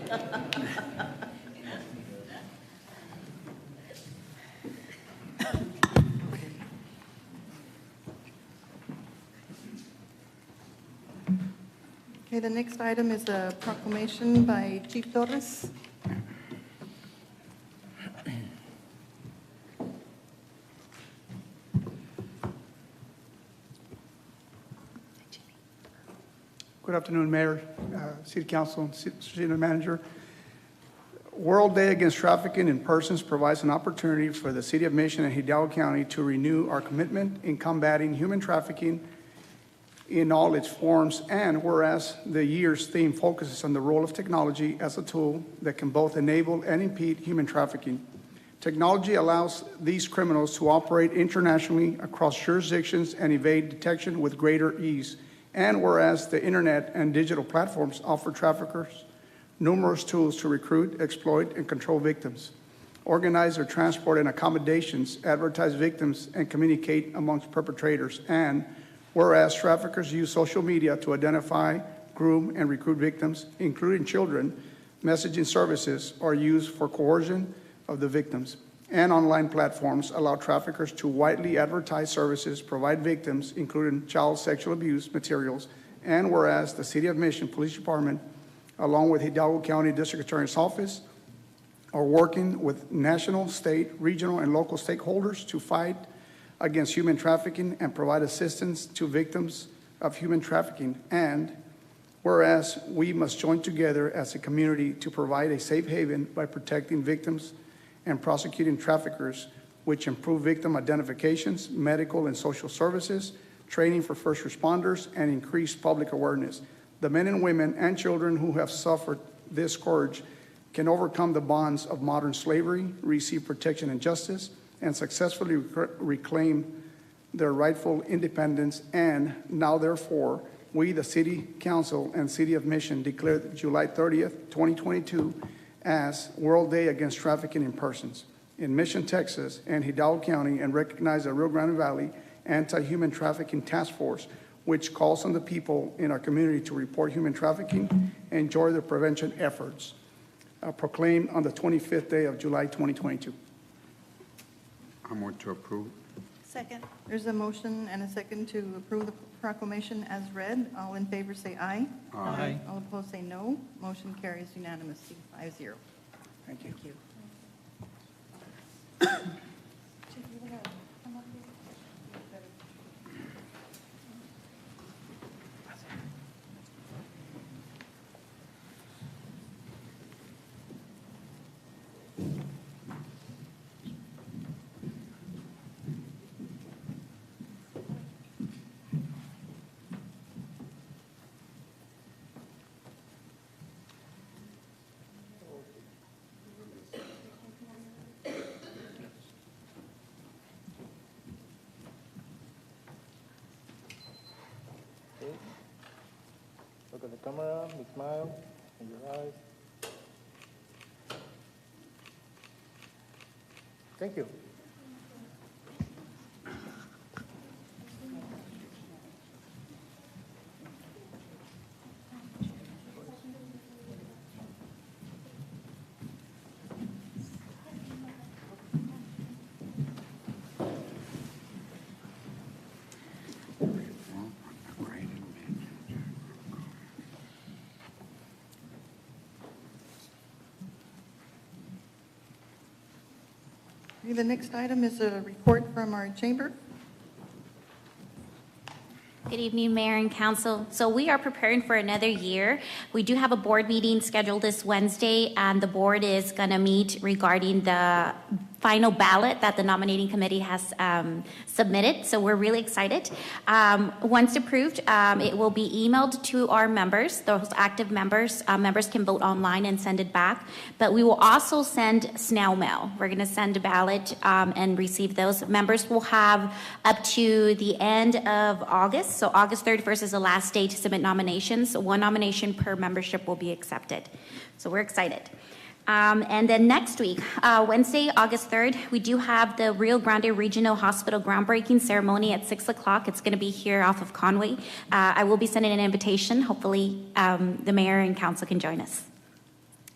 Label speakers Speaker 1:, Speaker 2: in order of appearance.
Speaker 1: Okay, the next item is a proclamation by Chief Torres.
Speaker 2: Good afternoon, Mayor, uh, City Council, and Ci- City Manager. World Day Against Trafficking in Persons provides an opportunity for the City of Mission and Hidalgo County to renew our commitment in combating human trafficking in all its forms, and whereas the year's theme focuses on the role of technology as a tool that can both enable and impede human trafficking. Technology allows these criminals to operate internationally across jurisdictions and evade detection with greater ease. And whereas the internet and digital platforms offer traffickers numerous tools to recruit, exploit, and control victims, organize their transport and accommodations, advertise victims, and communicate amongst perpetrators. And whereas traffickers use social media to identify, groom, and recruit victims, including children, messaging services are used for coercion of the victims. And online platforms allow traffickers to widely advertise services, provide victims, including child sexual abuse materials. And whereas the City of Mission Police Department, along with Hidalgo County District Attorney's Office, are working with national, state, regional, and local stakeholders to fight against human trafficking and provide assistance to victims of human trafficking. And whereas we must join together as a community to provide a safe haven by protecting victims and prosecuting traffickers, which improve victim identifications, medical and social services, training for first responders, and increase public awareness. The men and women and children who have suffered this scourge can overcome the bonds of modern slavery, receive protection and justice, and successfully rec- reclaim their rightful independence. And now, therefore, we, the City Council and City of Mission, declare July 30th, 2022, as World Day Against Trafficking in Persons in Mission, Texas, and Hidalgo County, and recognize the Rio Grande Valley Anti-Human Trafficking Task Force, which calls on the people in our community to report human trafficking and join the prevention efforts uh, proclaimed on the 25th day of July 2022.
Speaker 3: I'm going to approve.
Speaker 4: Second.
Speaker 1: There's a motion and a second to approve the proclamation as read. All in favor say aye. Aye. All opposed say no. Motion carries unanimously, five zero.
Speaker 2: Thank you.
Speaker 5: Okay. Look at the camera, and smile, and your eyes. Thank you.
Speaker 1: Okay, The next item is a report from our chamber.
Speaker 6: Good evening, Mayor and Council. So we are preparing for another year. We do have a board meeting scheduled this Wednesday, and the board is going to meet regarding the final ballot that the nominating committee has um, submitted. So we're really excited. Um, Once approved, um, it will be emailed to our members, those active members. Uh, Members can vote online and send it back. But we will also send snail mail. We're going to send a ballot um, and receive those. Members will have up to the end of August, so August 31st is the last day to submit nominations. One nomination per membership will be accepted. So we're excited. Um, And then next week, uh, Wednesday, August 3rd, we do have the Rio Grande Regional Hospital groundbreaking ceremony at 6 o'clock. It's going to be here off of Conway. Uh, I will be sending an invitation. Hopefully, um, the mayor and council can join us.